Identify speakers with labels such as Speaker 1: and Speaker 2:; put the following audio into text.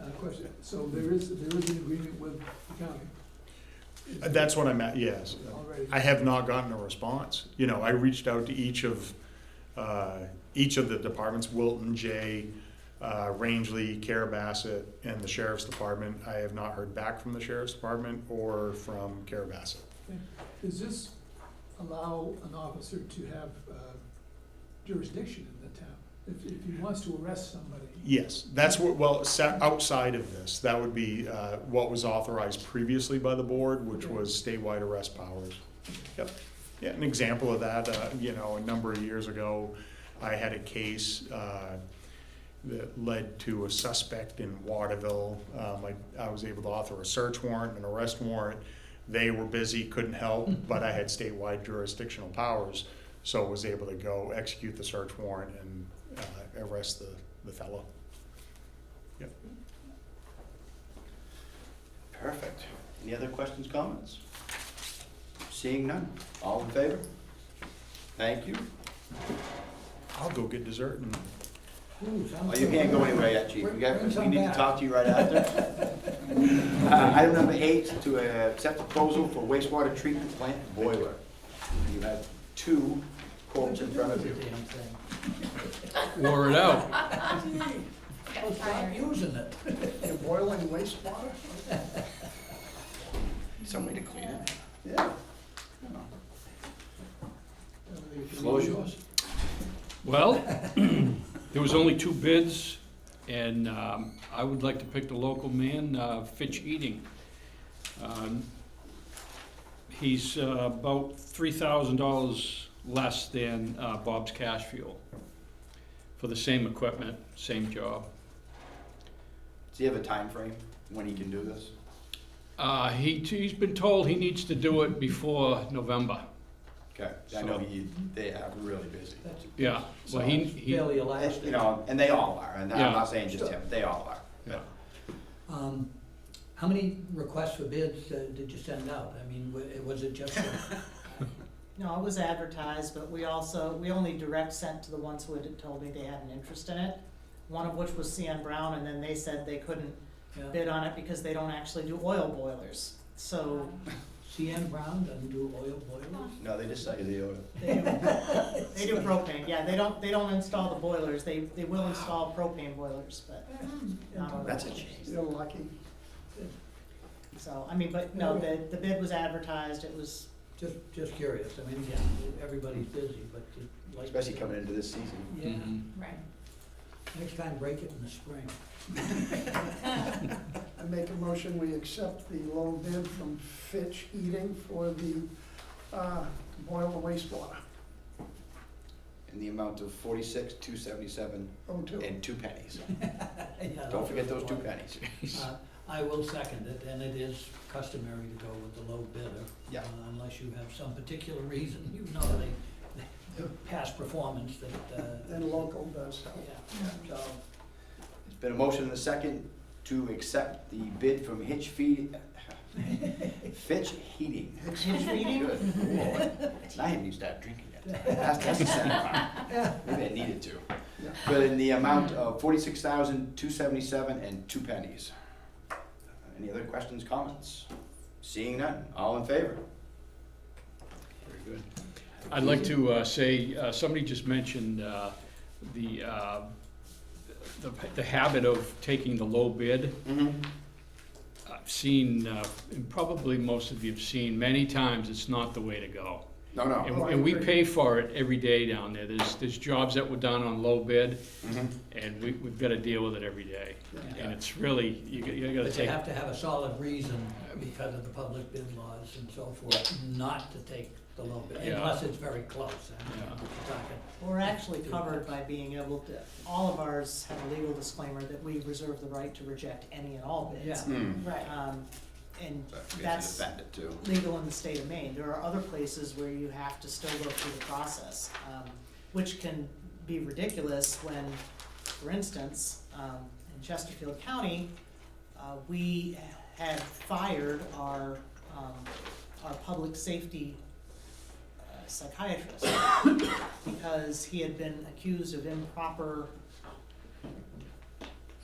Speaker 1: Uh, question. So there is, there is an agreement with the county
Speaker 2: That's what I'm at, yes.
Speaker 1: already.
Speaker 2: I have not gotten a response. You know, I reached out to each of, uh, each of the departments, Wilton, Jay, uh, Rangeley, Carabasset, and the sheriff's department. I have not heard back from the sheriff's department or from Carabasset.
Speaker 1: Does this allow an officer to have uh, jurisdiction in the town? If, if he wants to arrest somebody,
Speaker 2: Yes, that's what, well, sa- outside of this, that would be uh, what was authorized previously by the board, which
Speaker 1: Okay.
Speaker 2: was statewide arrest powers. Yep. Yeah, an example of that, uh, you know, a number of years ago, I had a case uh, that led to a suspect in Waterville. Um, I I was able to author a search warrant, and an arrest warrant. They were busy, couldn't help, but I had statewide jurisdictional powers, so was able to go execute the search warrant and uh, arrest the the fellow.
Speaker 3: Perfect. Any other questions, comments? Seeing none, all in favor? Thank you.
Speaker 2: I'll go get dessert and
Speaker 3: Oh, you can't go anywhere yet, chief. We got,
Speaker 1: Bring some
Speaker 3: we need to
Speaker 1: back.
Speaker 3: talk to you right after. Uh, Item number eight, to uh, accept proposal for wastewater treatment plant boiler. You have two quotes in front of you.
Speaker 4: Damn thing.
Speaker 5: Wore it out.
Speaker 6: Got tired.
Speaker 4: Using it.
Speaker 3: You're boiling wastewater? Some way to clean it. Yeah. Floor's yours.
Speaker 5: Well, there was only two bids, and um, I would like to pick the local man, uh, Fitch Eating. Um, He's uh, about three thousand dollars less than uh, Bob's Cash Fuel for the same equipment, same job.
Speaker 3: Does he have a time frame when he can do this?
Speaker 5: Uh, He, he's been told he needs to do it before November.
Speaker 3: Okay, I know he, they are really busy.
Speaker 5: Yeah, well, he, he,
Speaker 4: Fairly
Speaker 3: It's, You
Speaker 4: elastic.
Speaker 3: know, and they all are, and I'm
Speaker 5: Yeah.
Speaker 3: not saying just him, they all are.
Speaker 5: yeah.
Speaker 4: Um, How many requests for bids uh, did you send out? I mean, wa- was it just, for-
Speaker 7: No, it was advertised, but we also, we only direct sent to the ones who had told me they had an interest in it. One of which was CN Brown, and then they said they couldn't
Speaker 4: yeah,
Speaker 7: bid on it because they don't actually do oil boilers. So
Speaker 4: CN Brown doesn't do oil boilers?
Speaker 3: No, they just sell you the oil.
Speaker 7: they do, they do propane, yeah, they don't, they don't install the boilers, they, they will install propane boilers, but. not oil
Speaker 3: That's a
Speaker 7: boilers.
Speaker 3: change. You're lucky.
Speaker 7: So, I mean, but no, the, the bid was advertised, it was,
Speaker 4: Just, just curious. I mean, yeah, everybody's busy, but you'd like. to-
Speaker 3: Especially coming Mm-hmm. into this season.
Speaker 4: Yeah,
Speaker 5: Mhm.
Speaker 6: Right.
Speaker 4: next time break it in the spring.
Speaker 8: I make a motion, we accept the low bid from Fitch Eating for the uh, boiler wastewater,
Speaker 3: In the amount of forty-six, two seventy-seven,
Speaker 8: oh two.
Speaker 3: and two pennies.
Speaker 4: Yeah,
Speaker 3: Don't forget those two
Speaker 4: that's-
Speaker 3: pennies.
Speaker 4: Uh, I will second it, and it is customary to go with the low bidder.
Speaker 3: Yeah.
Speaker 4: uh, Unless you have some particular reason, you know, they, their past performance that, uh.
Speaker 8: And local does help.
Speaker 4: Yeah, so,
Speaker 3: It's been a motion and a second to accept the bid from Hitch Feed, Fitch Heating.
Speaker 7: Hitch Feeding?
Speaker 3: Good lord. I haven't even started drinking yet. That's, that's a sign. Maybe I needed to. But in the amount of forty-six thousand, two seventy-seven and two pennies. Uh, Any other questions, comments? Seeing none, all in favor? Very good.
Speaker 5: I'd like to uh, say, uh, somebody just mentioned uh, the, uh, the the habit of taking the low bid.
Speaker 3: Mm-hmm.
Speaker 5: I've seen, uh, and probably most of you have seen, many times it's not the way to go.
Speaker 3: No, no.
Speaker 5: And and we pay for it every day down there. There's, there's jobs that were done on low bid,
Speaker 3: Mhm.
Speaker 5: and we, we've got to deal with it every day. And it's really, you got- you got to
Speaker 4: But you
Speaker 5: take,
Speaker 4: have to have a solid reason because of the public bid laws and so forth, not to take the low bid,
Speaker 5: Yeah.
Speaker 4: unless it's very close. I mean,
Speaker 5: Yeah.
Speaker 4: you're talking-
Speaker 7: we're actually covered by being able to, all of ours have a legal disclaimer that we reserve the right to reject any and all bids.
Speaker 4: Yeah.
Speaker 3: Mm.
Speaker 6: Right.
Speaker 7: Um, and
Speaker 3: But it's
Speaker 7: that's
Speaker 3: an offender too.
Speaker 7: legal in the state of Maine. There are other places where you have to still go through the process, um, which can be ridiculous when, for instance, um, in Chesterfield County, uh, we had fired our, um, our public safety uh, psychiatrist because he had been accused of improper